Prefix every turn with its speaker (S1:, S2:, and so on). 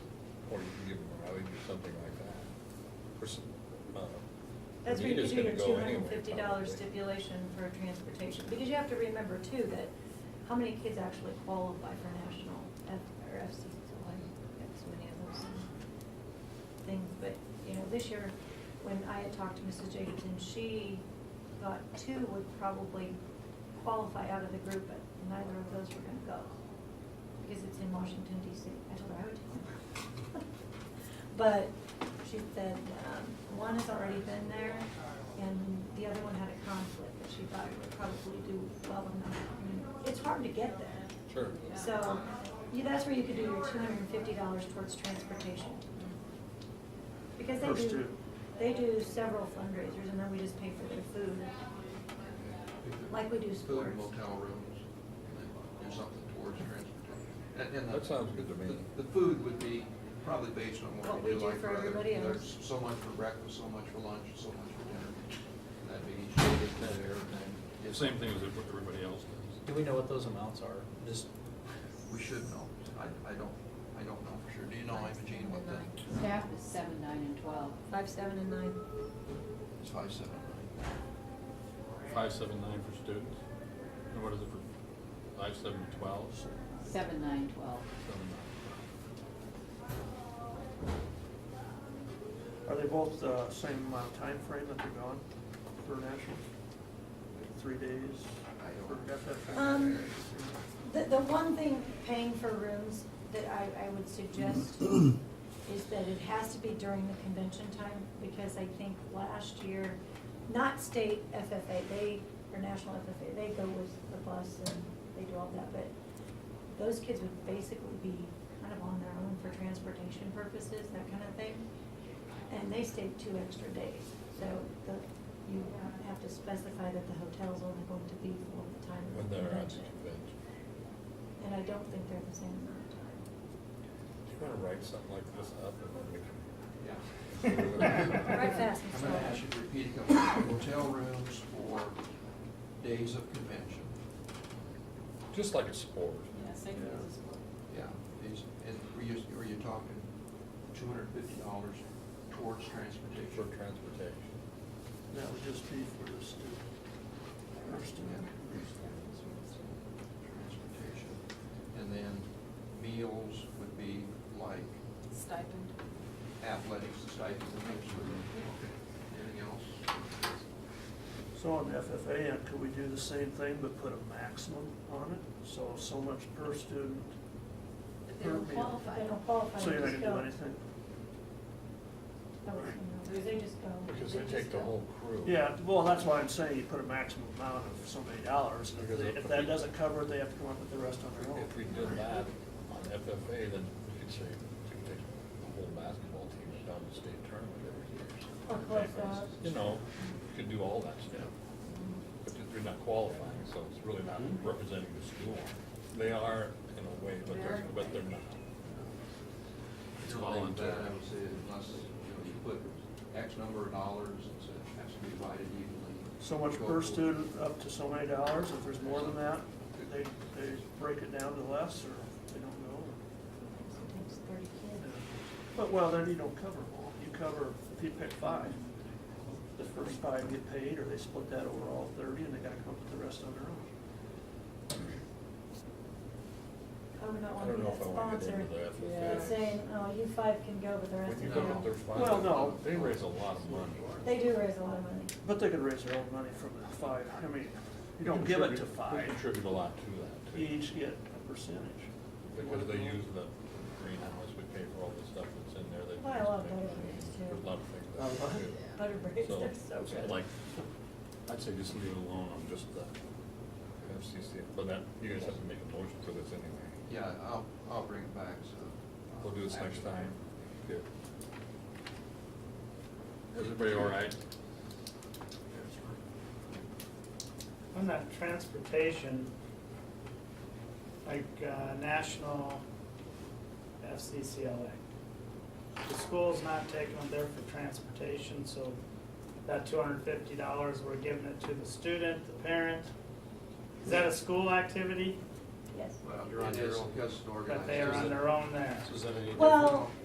S1: something like that. Pers- uh,
S2: That's where you could
S1: Anita's
S2: do
S1: gonna
S2: your
S1: go
S2: two hundred
S1: anyway,
S2: and fifty dollar
S1: probably.
S2: stipulation for transportation, because you have to remember too that how many kids actually qualify for national F, or FC, so like, that's many of those things, but, you know, this year, when I had talked to Mrs. Jacobson, she thought two would probably qualify out of the group, but neither of those were gonna go, because it's in Washington DC, I told her I would take them. But she said, um, one has already been there, and the other one had a conflict, that she thought would probably do well enough. I mean, It's hard to get there,
S1: Sure.
S2: so, you, that's where you could do your two hundred and fifty dollars towards transportation. Because they
S3: Those
S2: do,
S3: two.
S2: they do several fundraisers, and then we just pay for their food, like we do
S4: Food
S2: sports.
S4: and motel rooms, and do something towards transportation. And- and the-
S1: That sounds good to me.
S4: The the food would be probably based on
S2: What
S4: what
S2: we
S4: we do
S2: do
S4: like
S2: for
S4: for other,
S2: everybody
S4: there's
S2: else.
S4: so much for breakfast, so much for lunch, so much for dinner. And that'd be each day, that everything. If-
S3: Same thing as what everybody else does.
S5: Do we know what those amounts are? Just,
S4: We should know. I, I don't, I don't know for sure. Do you know, Imogene, what the,
S6: Staff is seven, nine, and twelve.
S2: Five, seven, and nine.
S4: it's five, seven, nine?
S3: Five, seven, nine for students. And what is it for, five, seven, twelve? Seven,
S6: Seven, nine, twelve.
S3: nine.
S7: Are they both the same amount of time frame that they're gone for national? Like Three days
S4: I
S7: for
S4: don't-
S7: FFA?
S2: Um, The, the one thing paying for rooms that I, I would suggest is that it has to be during the convention time, because I think last year, not state FFA, they, or national FFA, they go with the bus and they do all that, but those kids would basically be kind of on their own for transportation purposes, that kind of thing. And they stayed two extra days, so the, you have to specify that the hotel's only going to be for the time of
S1: When
S2: the
S1: they're at the
S2: convention.
S1: convention.
S2: And I don't think they're the same amount of time.
S1: Do you wanna write something like this up and then we can?
S4: Yeah.
S2: Right fast and
S4: I'm gonna ask
S2: slow.
S4: you to repeat a couple, hotel rooms for days of convention.
S1: Just like a sport.
S6: Yeah, same
S4: thing as Yeah, these, and were you, were you talking two hundred fifty dollars towards
S1: For
S4: transportation?
S1: transportation.
S7: That would just be for the student. Our student.
S4: Transportation. And then meals would be like
S6: Stipend.
S4: athletics, stipends, and things for them. Anything else?
S7: So on the FFA, end, could we do the same thing but put a maximum on it? So, so much per student,
S6: But they don't qualify.
S2: They don't qualify,
S7: so
S2: they
S7: you're not
S2: just
S7: gonna do
S2: go.
S7: anything?
S2: That was, you know, They just go.
S1: Because they take the whole crew.
S7: Yeah, well, that's why I'm saying you put a maximum amount of so many dollars. and If
S1: Because
S7: they-
S1: if
S7: if that
S1: we-
S7: doesn't cover it, they have to come up with the rest on their own.
S1: If we did that on FFA, then we could say, we could take the whole basketball team down to state tournament every year.
S2: Or close up.
S1: You know, you could do all that stuff. But they're not qualifying, so it's really not representing the school. They are in a way, but they're, but they're not.
S3: It's
S4: Something like that,
S3: voluntary.
S4: I would say, unless, you know, you put X number of dollars, it's, it has to be divided evenly.
S7: So much
S4: Go
S7: per
S4: for-
S7: student, up to so many dollars, if there's more than that, they, they break it down to less, or they don't go.
S2: It takes thirty kids.
S7: But, well, then you don't cover them all, you cover, if you pick five, the first five get paid, or they split that over all thirty, and they gotta come up with the rest on their own.
S2: I would not
S1: I
S2: want to
S1: don't know if
S2: be that
S1: I wanna get
S2: sponsor.
S1: into that. with
S6: Yeah.
S2: That's
S1: this.
S2: saying, oh, you five can go, but the rest
S1: When you
S2: of
S1: look
S2: them
S1: at their
S2: don't.
S1: funds.
S7: Well, no.
S1: They raise a lot of money.
S2: They do raise a lot of money.
S7: But they could raise their own money from the five, I mean, you don't give it to
S1: Contribute- They
S7: five,
S1: contribute a lot to that
S7: you
S1: too.
S7: each get a percentage.
S1: Because they use the greenhouse, we pay for all the stuff that's in there. They
S2: Well, I
S1: use
S2: love
S1: to make money.
S2: butter braids, too.
S1: There's a lot of things.
S7: I
S1: that
S7: love
S1: they
S7: it.
S1: do.
S2: Butter braids,
S1: So,
S2: they're so
S1: it's
S2: good.
S1: Like, I'd say just leave it alone on just the FCC, but that, you guys have to make a motion for this anyway.
S4: Yeah, I'll, I'll bring it back, so. uh,
S1: We'll do this next
S4: action.
S1: time.
S3: Is everybody all right?
S8: On that transportation, like uh, national FCCLA, the school's not taking them there for transportation, so that two hundred and fifty dollars, we're giving it to the student, the parent. Is that a school activity?
S2: Yes.
S4: Well,
S3: You're on
S4: it
S3: your
S4: is
S3: own.
S4: because it's
S8: But they are
S4: organized.
S8: on their own there?
S3: So is that any?
S2: Well,